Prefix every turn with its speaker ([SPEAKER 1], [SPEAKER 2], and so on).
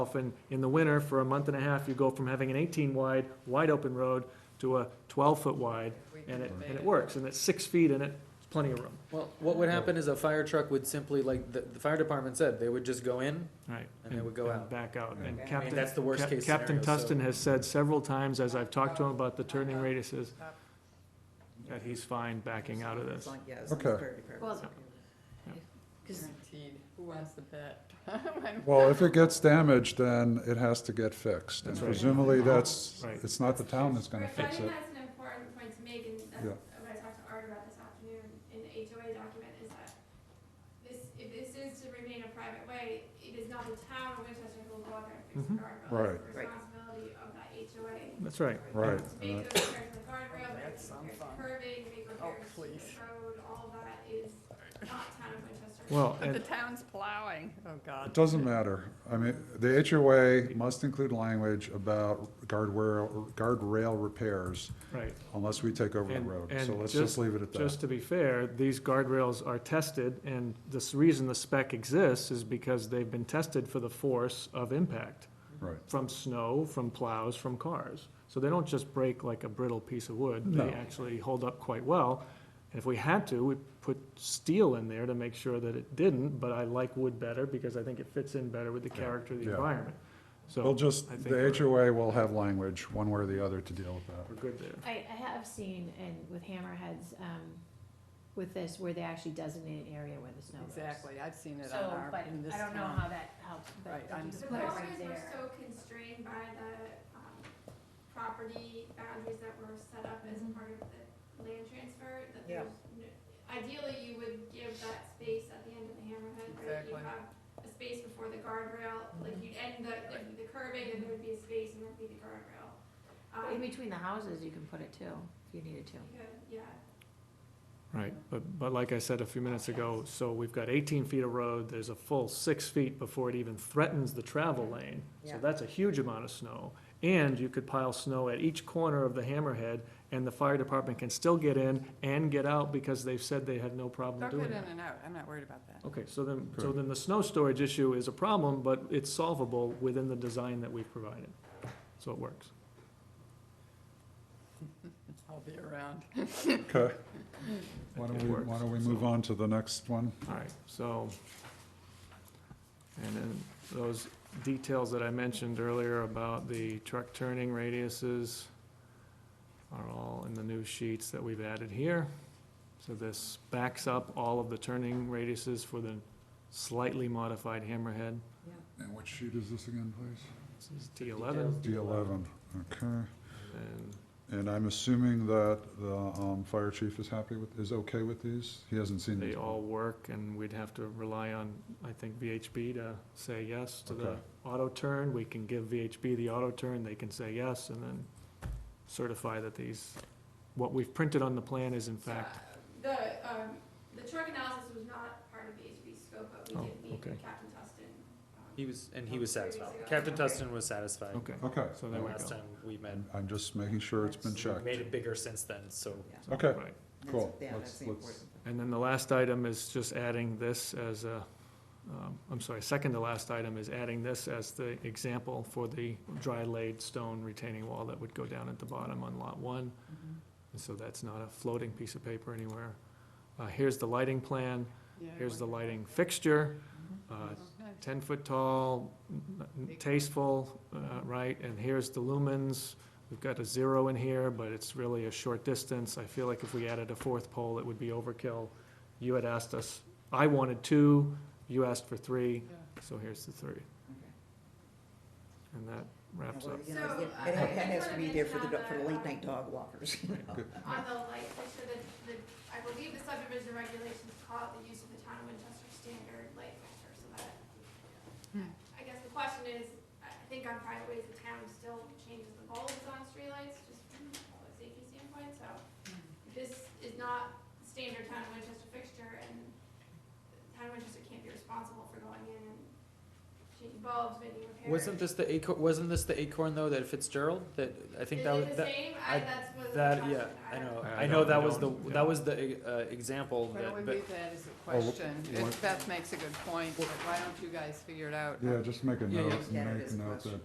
[SPEAKER 1] And in the winter, for a month and a half, you go from having an 18-wide, wide-open road to a 12-foot wide, and it, and it works, and it's six feet in it, it's plenty of room.
[SPEAKER 2] Well, what would happen is a fire truck would simply, like, the, the fire department said, they would just go in.
[SPEAKER 1] Right.
[SPEAKER 2] And they would go out.
[SPEAKER 1] Back out. And
[SPEAKER 3] Right. I mean,
[SPEAKER 1] Captain.
[SPEAKER 2] that's the worst
[SPEAKER 1] Cap-
[SPEAKER 2] case
[SPEAKER 1] Captain
[SPEAKER 2] scenario, so-
[SPEAKER 1] Tustin has said several times, as I've talked to him about the turning radiuses, that he's fine backing out of this.
[SPEAKER 3] Yes.
[SPEAKER 4] Okay.
[SPEAKER 5] Well,
[SPEAKER 1] Yeah.
[SPEAKER 5] because
[SPEAKER 6] Guaranteed, who wants the bet?
[SPEAKER 4] Well, if it gets damaged, then it has to get fixed. And
[SPEAKER 1] That's right. Uh-huh.
[SPEAKER 4] presumably, that's,
[SPEAKER 1] Right.
[SPEAKER 4] it's not the town that's gonna
[SPEAKER 7] Rick, I
[SPEAKER 4] fix
[SPEAKER 7] think
[SPEAKER 4] it.
[SPEAKER 7] that's an important point to make, and that's
[SPEAKER 4] Yeah.
[SPEAKER 7] what I talked to Art about this afternoon in the HOA document, is that this, if this is to remain a private way, it is not the town of Winchester who will go out there and fix the
[SPEAKER 1] Mhm.
[SPEAKER 7] guardrail.
[SPEAKER 4] Mm-hmm. Right.
[SPEAKER 7] It's the
[SPEAKER 3] Right.
[SPEAKER 7] responsibility of that HOA.
[SPEAKER 1] That's right.
[SPEAKER 4] Right.
[SPEAKER 7] To
[SPEAKER 4] And
[SPEAKER 7] make
[SPEAKER 4] that-
[SPEAKER 7] those repairs to the guardrail, make
[SPEAKER 6] That's some
[SPEAKER 7] repairs to
[SPEAKER 6] fun.
[SPEAKER 7] curving, make
[SPEAKER 6] Oh,
[SPEAKER 7] repairs to
[SPEAKER 6] please.
[SPEAKER 7] the road, all of that is not town of Winchester.
[SPEAKER 1] Well,
[SPEAKER 6] But the
[SPEAKER 1] and,
[SPEAKER 6] town's plowing, oh
[SPEAKER 4] It
[SPEAKER 6] God.
[SPEAKER 4] doesn't matter. I mean, the HOA must include language about guardrail, guardrail repairs
[SPEAKER 1] right.
[SPEAKER 4] unless we take over the
[SPEAKER 1] And-
[SPEAKER 4] road.
[SPEAKER 1] and
[SPEAKER 4] So let's just leave it at that.
[SPEAKER 1] Just to be fair, these guardrails are tested, and this reason the spec exists is because they've been tested for the force of impact.
[SPEAKER 4] Right.
[SPEAKER 1] from snow, from plows, from cars. So they don't just break like a brittle piece of wood.
[SPEAKER 4] No.
[SPEAKER 1] They actually hold up quite well. And if we had to, we put steel in there to make sure that it didn't, but I like wood better because I think it fits in better with the character of the
[SPEAKER 4] Yeah.
[SPEAKER 1] environment.
[SPEAKER 4] We'll
[SPEAKER 1] So
[SPEAKER 4] just,
[SPEAKER 1] I think
[SPEAKER 4] the
[SPEAKER 1] we're-
[SPEAKER 4] HOA will have language, one way or the other, to deal with that.
[SPEAKER 1] we're good there.
[SPEAKER 5] I, I have seen, and with hammerheads, um, with this, where they actually designate an area where the snow goes.
[SPEAKER 6] Exactly, I've seen it
[SPEAKER 5] So,
[SPEAKER 6] on our,
[SPEAKER 5] but
[SPEAKER 6] in this
[SPEAKER 5] I don't know
[SPEAKER 6] town.
[SPEAKER 5] how that helps, but
[SPEAKER 6] Right,
[SPEAKER 5] if
[SPEAKER 6] I'm
[SPEAKER 5] you
[SPEAKER 6] just
[SPEAKER 7] The
[SPEAKER 5] put it
[SPEAKER 7] boulders
[SPEAKER 5] right
[SPEAKER 7] were
[SPEAKER 5] there.
[SPEAKER 7] so constrained by the, um, property boundaries that were set up as
[SPEAKER 5] Mm-hmm.
[SPEAKER 6] Mhm.
[SPEAKER 7] part of the land transfer, that
[SPEAKER 3] Yeah.
[SPEAKER 7] there's, n- ideally, you would give that space at the end of the hammerhead, right? You
[SPEAKER 6] Exactly.
[SPEAKER 7] have a space before the guardrail, like
[SPEAKER 1] Mm-hmm.
[SPEAKER 7] you'd end the, the- the curving, and there would be a space, and there'd be the guardrail.
[SPEAKER 5] In
[SPEAKER 7] Um,
[SPEAKER 5] between the houses, you can put it too, if you needed to.
[SPEAKER 7] you could, yeah.
[SPEAKER 1] Right, but, but like I said a few minutes ago, so we've got eighteen feet of road, there's a full six feet before it even threatens the travel lane. So
[SPEAKER 3] Yeah.
[SPEAKER 1] that's a huge amount of snow. And you could pile snow at each corner of the hammerhead, and the fire department can still get in and get out because they've said they had no problem
[SPEAKER 6] They'll
[SPEAKER 1] doing
[SPEAKER 6] get in
[SPEAKER 1] that.
[SPEAKER 6] and out, I'm not worried about that.
[SPEAKER 1] Okay, so then, so
[SPEAKER 4] Correct.
[SPEAKER 1] then the snow storage issue is a problem, but it's solvable within the design that we've provided. So it works.
[SPEAKER 6] I'll be around.
[SPEAKER 4] Okay.
[SPEAKER 1] I
[SPEAKER 4] Why
[SPEAKER 1] think
[SPEAKER 4] don't
[SPEAKER 1] it
[SPEAKER 4] we,
[SPEAKER 1] works.
[SPEAKER 4] why don't we
[SPEAKER 1] So-
[SPEAKER 4] move on to the next one?
[SPEAKER 1] All right, so, and then those details that I mentioned earlier about the truck turning radiuses are all in the new sheets that we've added here. So this backs up all of the turning radiuses for the slightly modified hammerhead.
[SPEAKER 4] And which sheet is this again, please?
[SPEAKER 1] This is D eleven,
[SPEAKER 4] D eleven, okay.
[SPEAKER 1] and
[SPEAKER 4] And I'm assuming that the um, fire chief is happy with, is okay with these? He hasn't seen
[SPEAKER 1] they
[SPEAKER 4] these.
[SPEAKER 1] all work, and we'd have to rely on, I think, VHB to say yes to the
[SPEAKER 4] Okay.
[SPEAKER 1] auto turn. We can give VHB the auto turn, they can say yes, and then certify that these, what we've printed on the plan is in
[SPEAKER 7] So,
[SPEAKER 1] fact,
[SPEAKER 7] uh, The, um, the truck analysis was not part of the HB scope, but
[SPEAKER 1] Oh,
[SPEAKER 7] we did meet
[SPEAKER 1] okay.
[SPEAKER 7] with Captain Tustin. um,
[SPEAKER 2] He was, and he was
[SPEAKER 7] Three weeks
[SPEAKER 2] satisfied.
[SPEAKER 7] ago.
[SPEAKER 2] Captain Tustin was satisfied.
[SPEAKER 1] okay,
[SPEAKER 4] Okay.
[SPEAKER 1] so there we
[SPEAKER 2] Last
[SPEAKER 1] go.
[SPEAKER 2] time we met,
[SPEAKER 4] I'm- I'm just making sure it's been
[SPEAKER 2] We've
[SPEAKER 4] checked.
[SPEAKER 2] made it bigger since then, so.
[SPEAKER 1] So,
[SPEAKER 4] Okay.
[SPEAKER 1] right.
[SPEAKER 4] Cool.
[SPEAKER 3] Yeah,
[SPEAKER 4] Let's-
[SPEAKER 3] that's the
[SPEAKER 4] let's-
[SPEAKER 3] important thing.
[SPEAKER 1] And then the last item is just adding this as a, um, I'm sorry, second to last item is adding this as the example for the dry laid stone retaining wall that would go down at the bottom on lot one.
[SPEAKER 3] Mm-hmm.
[SPEAKER 1] And so that's not a floating piece of paper anywhere. Uh, here's the lighting plan,
[SPEAKER 6] Yeah,
[SPEAKER 1] here's the
[SPEAKER 6] wonderful.
[SPEAKER 1] lighting fixture, uh,
[SPEAKER 6] Mhm. Nice.
[SPEAKER 1] ten foot tall, n- n- tasteful, uh, right? And here's the lumens, we've got a zero in here, but it's really a short distance. I feel like if we added a fourth pole, it would be overkill. You had asked us, I wanted two, you asked for three,
[SPEAKER 6] Yeah.
[SPEAKER 1] so here's the three. And that wraps
[SPEAKER 3] Mm-hmm. Well,
[SPEAKER 1] up.
[SPEAKER 3] you know,
[SPEAKER 7] So,
[SPEAKER 3] it-
[SPEAKER 7] I-
[SPEAKER 3] It
[SPEAKER 7] I
[SPEAKER 3] ha- that
[SPEAKER 7] just
[SPEAKER 3] has to
[SPEAKER 7] wanna
[SPEAKER 3] be there for the,
[SPEAKER 7] mention
[SPEAKER 3] do- for the
[SPEAKER 7] on the,
[SPEAKER 3] late night dog walkers.
[SPEAKER 7] on the light fixture, the, the, I believe the subdivision regulations call it the use of the town of Winchester standard light fixture, so that. I guess the question is, I I think on private ways, the town still changes the bulbs on streetlights, just from a safety standpoint, so. if This is not standard town of Winchester fixture, and the town of Winchester can't be responsible for going in and changing involves making repairs.
[SPEAKER 2] Wasn't this the acorn, wasn't this the acorn though that Fitzgerald, that, I think
[SPEAKER 7] Is
[SPEAKER 2] that
[SPEAKER 7] it
[SPEAKER 2] was,
[SPEAKER 7] the
[SPEAKER 2] that,
[SPEAKER 7] same? I,
[SPEAKER 2] I-
[SPEAKER 7] that's what the
[SPEAKER 2] that,
[SPEAKER 7] question-
[SPEAKER 2] yeah, I
[SPEAKER 7] don't
[SPEAKER 2] know,
[SPEAKER 1] I
[SPEAKER 2] I know
[SPEAKER 1] don't-
[SPEAKER 2] that
[SPEAKER 1] I
[SPEAKER 2] was the,
[SPEAKER 1] don't, yeah.
[SPEAKER 2] that was the, uh, example
[SPEAKER 6] Why
[SPEAKER 2] that,
[SPEAKER 6] don't we
[SPEAKER 2] but,
[SPEAKER 6] leave that as a
[SPEAKER 4] Well,
[SPEAKER 6] question? It-
[SPEAKER 4] what-
[SPEAKER 6] Beth makes a good point, but why don't you guys figure it out?
[SPEAKER 4] Yeah, just make a
[SPEAKER 2] Yeah,
[SPEAKER 4] note,
[SPEAKER 2] yeah.
[SPEAKER 4] make a note that